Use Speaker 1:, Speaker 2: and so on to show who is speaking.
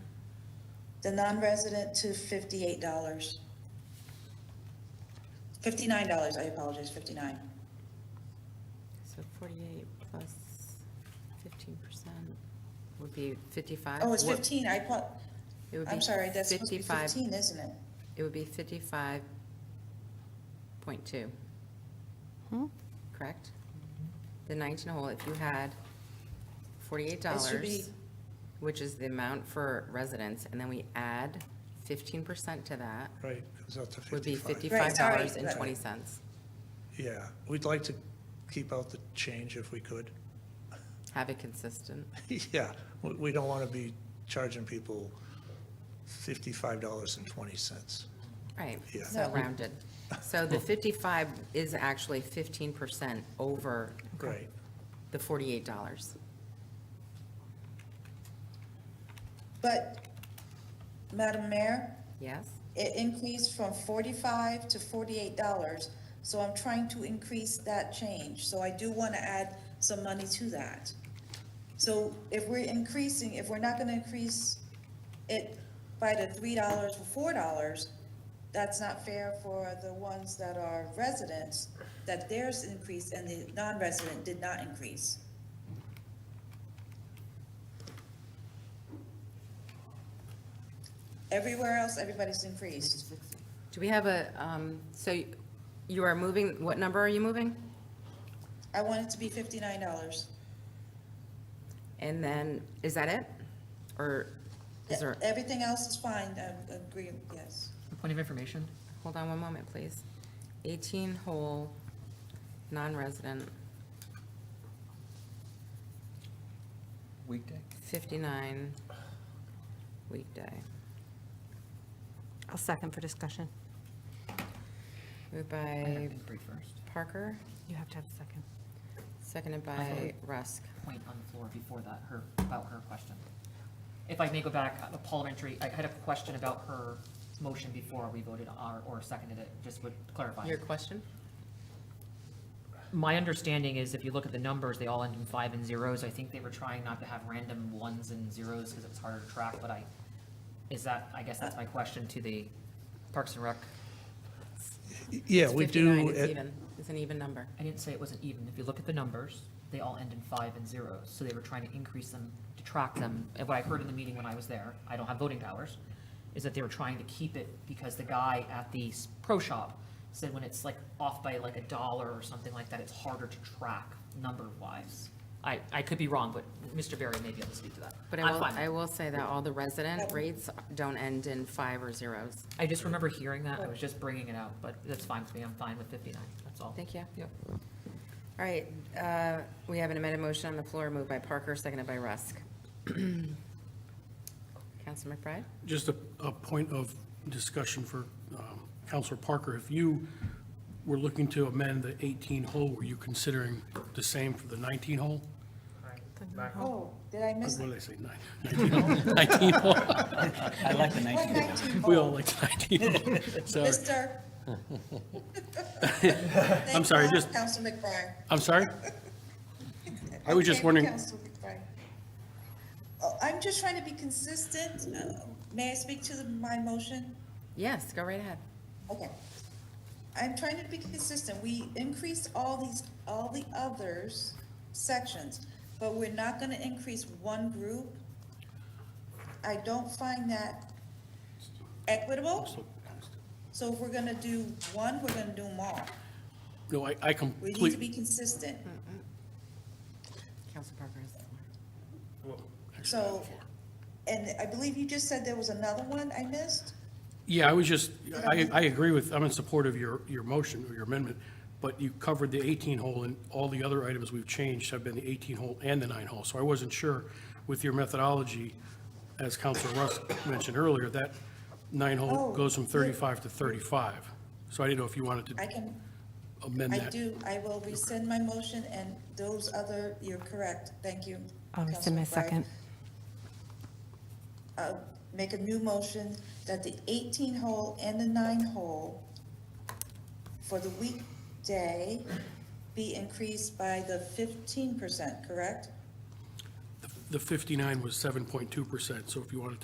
Speaker 1: the non-resident to fifty-eight dollars. Fifty-nine dollars, I apologize, fifty-nine.
Speaker 2: So 48 plus 15% would be 55?
Speaker 1: Oh, it's
Speaker 2: What-
Speaker 1: fifteen, I thought,
Speaker 2: it would
Speaker 1: I'm
Speaker 2: be
Speaker 1: sorry, that's supposed to be
Speaker 2: 55
Speaker 1: fifteen, isn't it?
Speaker 2: It would be 55.2, correct? The 19 hole, if you had $48,
Speaker 1: be-
Speaker 2: which is the amount for residents, and then we add 15% to that,
Speaker 3: Right, comes out to
Speaker 2: would be
Speaker 3: 55.
Speaker 1: Right, sorry, right.
Speaker 2: $55.20.
Speaker 3: Yeah, we'd like to keep out the change if we could.
Speaker 2: Have it consistent.
Speaker 3: Yeah, we- we don't want to be charging people $55.20.
Speaker 2: Right,
Speaker 3: Yeah.
Speaker 2: so
Speaker 1: No.
Speaker 2: rounded. So the 55 is actually 15% over
Speaker 3: Right,
Speaker 2: the $48.
Speaker 1: But, Madam Mayor,
Speaker 2: Yes?
Speaker 1: it increased from forty-five to forty-eight dollars, so I'm trying to increase that change, so I do want to add some money to that. So if we're increasing, if we're not gonna increase it by the three dollars or four dollars, that's not fair for the ones that are residents, that theirs increased and the non-resident did not increase. Everywhere else, everybody's increased.
Speaker 2: Do we have a, um, so you are moving, what number are you moving?
Speaker 1: I want it to be fifty-nine dollars.
Speaker 2: And then, is that it? Or is there,
Speaker 1: Everything else is fine, I agree, yes.
Speaker 4: A Point of information,
Speaker 2: hold on one moment, please. 18 whole, non-resident,
Speaker 5: Weekday?
Speaker 2: 59 weekday.
Speaker 6: I'll second for discussion.
Speaker 2: Moved by
Speaker 4: three first,
Speaker 2: Parker,
Speaker 6: You have to have a second.
Speaker 2: seconded by
Speaker 4: Okay.
Speaker 2: Rusk.
Speaker 4: point on the floor before that, her, about her question. If I may go back, uh, parliamentary, I had a question about her motion before we voted on, or seconded it, just would clarify.
Speaker 2: Your question?
Speaker 4: My understanding is if you look at the numbers, they all end in five and zeros. I think they were trying not to have random ones and zeros because it was harder to track, but I, is that, I guess that's my question to the Parks and Rec.
Speaker 3: yeah,
Speaker 2: It's
Speaker 3: we
Speaker 2: 59,
Speaker 3: do,
Speaker 2: It's
Speaker 3: at-
Speaker 2: even, it's an even number.
Speaker 4: I didn't say it wasn't even. If you look at the numbers, they all end in five and zeros, so they were trying to increase them, to track them. And what I heard in the meeting when I was there, I don't have voting powers, is that they were trying to keep it because the guy at the s- pro shop said when it's like off by like a dollar or something like that, it's harder to track number-wise. I, I could be wrong, but Mr. Barry may be able to speak to that.
Speaker 2: But I
Speaker 4: I'm
Speaker 2: will,
Speaker 4: fine.
Speaker 2: I will say that all the resident rates don't end in five or zeros.
Speaker 4: I just remember hearing that. I was just bringing it out, but that's fine with me. I'm fine with 59. That's all.
Speaker 2: Thank you.
Speaker 4: Yep.
Speaker 2: All right, uh, we have an amended motion on the floor, moved by Parker, seconded by Rusk. Council McBride?
Speaker 7: Just a, a point of discussion for um, Counselor Parker. If you were looking to amend the 18 hole, were you considering the same for the 19 hole?
Speaker 1: Oh, did I miss?
Speaker 7: What did I say, nine- 19 hole? 19 hole?
Speaker 5: I like the
Speaker 1: What
Speaker 5: 19.
Speaker 1: 19?
Speaker 7: We all like the 19 hole. Sorry,
Speaker 1: Mister.
Speaker 7: I'm sorry, just-
Speaker 1: Council McBride.
Speaker 7: I'm sorry? I was just
Speaker 1: Okay,
Speaker 7: wondering-
Speaker 1: Council McBride. Oh, I'm just trying to be consistent. Uh, May I speak to the- my motion?
Speaker 2: Yes, go right ahead.
Speaker 1: Okay. I'm trying to be consistent. We increased all these, all the others sections, but we're not gonna increase one group. I don't find that equitable. So if we're gonna do one, we're gonna do them all.
Speaker 7: No, I,
Speaker 1: We
Speaker 7: I
Speaker 1: need to
Speaker 7: completely,
Speaker 1: be consistent.
Speaker 6: Hmm.
Speaker 2: Council Parker has the floor.
Speaker 1: So, and I believe you just said there was another one I missed?
Speaker 7: yeah, I was just, I, I agree with, I'm in support of your, your motion or your amendment, but you covered the 18 hole and all the other items we've changed have been the 18 hole and the nine hole. So I wasn't sure with your methodology, as Counselor Russ mentioned earlier, that nine
Speaker 1: Oh,
Speaker 7: hole goes from
Speaker 1: yeah.
Speaker 7: 35 to 35. So I didn't know if you wanted
Speaker 1: I
Speaker 7: to
Speaker 1: can,
Speaker 7: amend
Speaker 1: I
Speaker 7: that.
Speaker 1: do, I will rescind my motion and those other, you're correct. Thank you.
Speaker 6: I'll rescind my
Speaker 1: Councilman Bryant.
Speaker 6: second.
Speaker 1: uh, make a new motion that the 18-hole and the nine-hole for the weekday be increased by the 15%, correct?
Speaker 7: The 59 was 7.2%, so if you wanted to